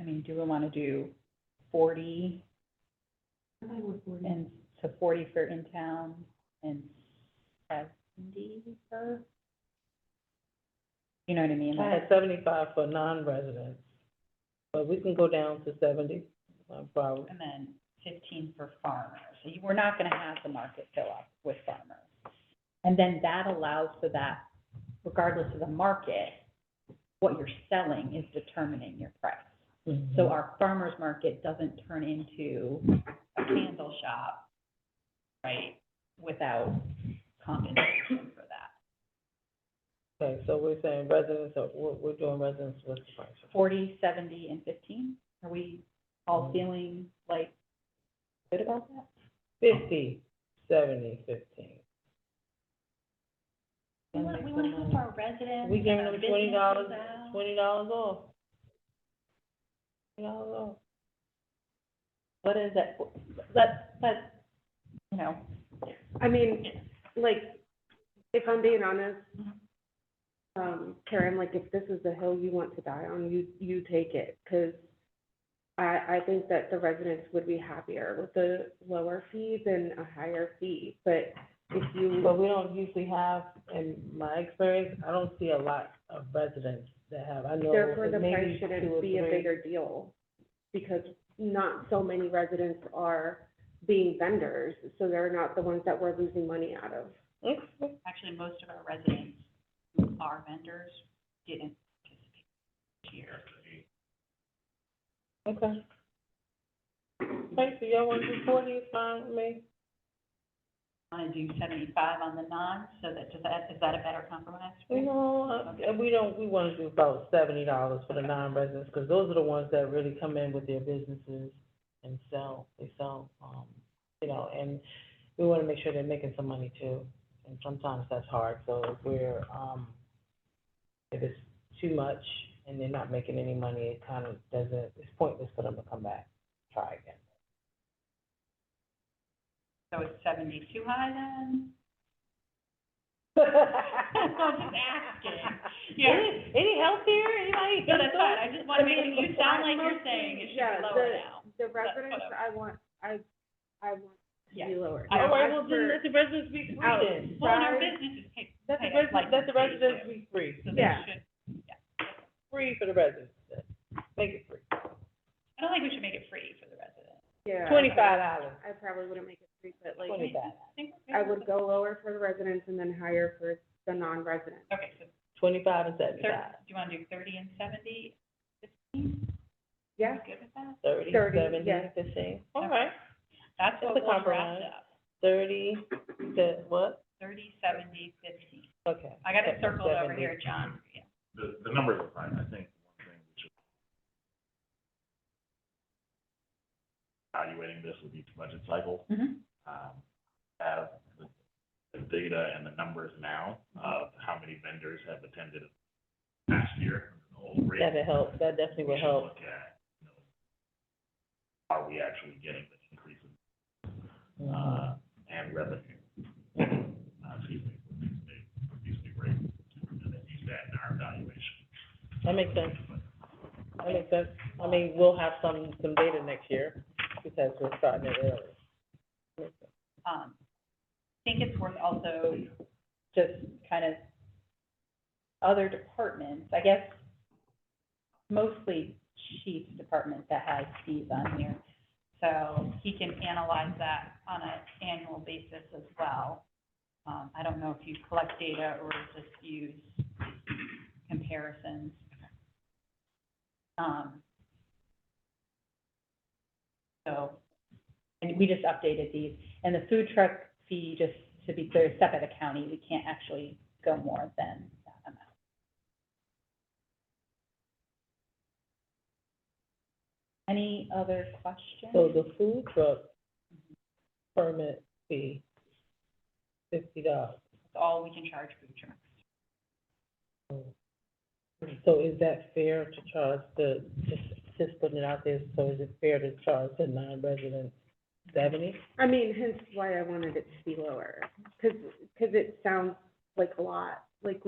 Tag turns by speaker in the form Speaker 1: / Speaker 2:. Speaker 1: I mean, do we wanna do forty
Speaker 2: I'm fine with forty.
Speaker 1: and, so forty for in-town and seventy for? You know what I mean?
Speaker 3: I
Speaker 1: Like,
Speaker 3: had seventy-five for non-residents, but we can go down to seventy, no problem.
Speaker 1: And then fifteen for farmers. So you- We're not gonna have the market fill up with farmers. And then that allows for that, regardless of the market, what you're selling is determining your price. So our farmer's market doesn't turn into a candle shop, right, without compensation for that.
Speaker 3: Okay, so we're saying residents, are- we're, we're doing residents with the price.
Speaker 1: Forty, seventy, and fifteen? Are we all
Speaker 3: Mm.
Speaker 1: feeling like good about that?
Speaker 3: Fifty, seventy, fifteen.
Speaker 2: We wanna, we wanna help our residents.
Speaker 3: We
Speaker 2: and
Speaker 3: giving
Speaker 2: our
Speaker 3: them twenty dollars,
Speaker 2: businesses out.
Speaker 3: twenty dollars off. Twenty dollars off.
Speaker 1: What is that, let's, let's, you know,
Speaker 4: I mean, like, if I'm being honest, um, Karen, like, if this is the hill you want to die on, you, you take it, because I, I think that the residents would be happier with the lower fee than a higher fee, but if you,
Speaker 3: But we don't usually have, in my experience, I don't see a lot of residents that have, I know.
Speaker 4: therefore the
Speaker 3: maybe
Speaker 4: price
Speaker 3: two or
Speaker 4: shouldn't be a
Speaker 3: three.
Speaker 4: bigger deal, because not so many residents are being vendors, so they're not the ones that we're losing money out of.
Speaker 3: Okay.
Speaker 2: Actually, most of our residents who are vendors didn't participate this year.
Speaker 3: Okay, Okay, so y'all want to do forty, it's fine with me.
Speaker 2: Wanna do seventy-five on the non, so that, does that, is that a better compromise? for you?
Speaker 3: No, and uh, we don't, we wanna do about seventy dollars for the non-residents, cause those are the ones that really come in with their businesses and sell, they sell, um, you know, and we wanna make sure they're making some money too, and sometimes that's hard, so if we're, um, if it's too much and they're not making any money, it kind of doesn't, it's pointless for them to come back, try again.
Speaker 2: So it's seventy too high then? I'm just asking. Yeah,
Speaker 3: Any, any help here, anybody?
Speaker 2: no, that's fine, I just wanna
Speaker 4: I
Speaker 2: make,
Speaker 4: mean,
Speaker 2: you sound
Speaker 4: I
Speaker 2: like you're
Speaker 4: mostly-
Speaker 2: saying it should
Speaker 4: yeah,
Speaker 2: be lower
Speaker 4: the-
Speaker 2: now.
Speaker 4: The
Speaker 2: That's what
Speaker 4: residents, I want, I, I want to
Speaker 2: Yeah.
Speaker 4: be lower.
Speaker 2: I-
Speaker 3: All right, well,
Speaker 4: As
Speaker 3: then
Speaker 4: for-
Speaker 3: let the residents be free
Speaker 4: Out.
Speaker 3: then.
Speaker 2: Well, and our
Speaker 4: Sorry.
Speaker 2: businesses pay,
Speaker 3: Let the
Speaker 2: pay us like
Speaker 3: residents, let
Speaker 2: we
Speaker 3: the
Speaker 2: pay
Speaker 3: residents
Speaker 2: too.
Speaker 3: be free,
Speaker 2: so they
Speaker 4: Yeah.
Speaker 2: should,
Speaker 3: free for the residents, make it free.
Speaker 2: I don't think we should make it free for the residents.
Speaker 4: Yeah.
Speaker 3: Twenty-five dollars,
Speaker 4: I probably wouldn't make it three, but like,
Speaker 3: twenty-five,
Speaker 2: I think we're good
Speaker 4: I
Speaker 2: with
Speaker 4: would go lower for the residents and then higher for the non-residents.
Speaker 2: the- Okay, so
Speaker 3: twenty-five and
Speaker 2: thirty,
Speaker 3: seventy-five,
Speaker 2: do you wanna do thirty and seventy?
Speaker 4: Yeah,
Speaker 2: Good with that?
Speaker 3: thirty,
Speaker 4: Thirty,
Speaker 3: seventy,
Speaker 4: yeah.
Speaker 3: fifteen, all right,
Speaker 2: That's
Speaker 3: It's
Speaker 2: what
Speaker 3: a
Speaker 2: we'll
Speaker 3: compromise.
Speaker 2: draft up,
Speaker 3: thirty, the, what?
Speaker 2: thirty, seventy, fifteen.
Speaker 3: Okay.
Speaker 2: I got it circled over
Speaker 3: 70.
Speaker 2: here, John, for you.
Speaker 5: the, the numbers are fine, I think one thing we should evaluating this with each budget cycle,
Speaker 4: Mm-hmm.
Speaker 1: mhm.
Speaker 5: um, have the, the data and the numbers now of how many vendors have attended last year, the whole rate.
Speaker 3: That'd help, that definitely
Speaker 5: We
Speaker 3: would
Speaker 5: should
Speaker 3: help,
Speaker 5: Look at, you know, are we actually getting the increase in,
Speaker 3: Mhm.
Speaker 5: uh, and revenue? Uh, excuse me, with these new, with these new rates, and then use that in our evaluation.
Speaker 3: that makes sense, that makes sense, I mean, we'll have some, some data next year, because we're starting it early.
Speaker 1: Um, I think it's worth also just kind of other departments, I guess, mostly chief's department that has fees on here. So he can analyze that on an annual basis as well. Um, I don't know if you collect data or just use comparisons. Um, so, and we just updated these. And the food truck fee, just to be clear, is set by the county, we can't actually go more than that amount. Any other questions?
Speaker 3: So the food truck permit fee, fifty dollars.
Speaker 1: That's all we can charge food trucks.
Speaker 3: So is that fair to charge the, just, just putting it out there, so is it fair to charge the non-resident seventy?
Speaker 4: I mean, hence why I wanted it to be lower, because, because it sounds like a lot, like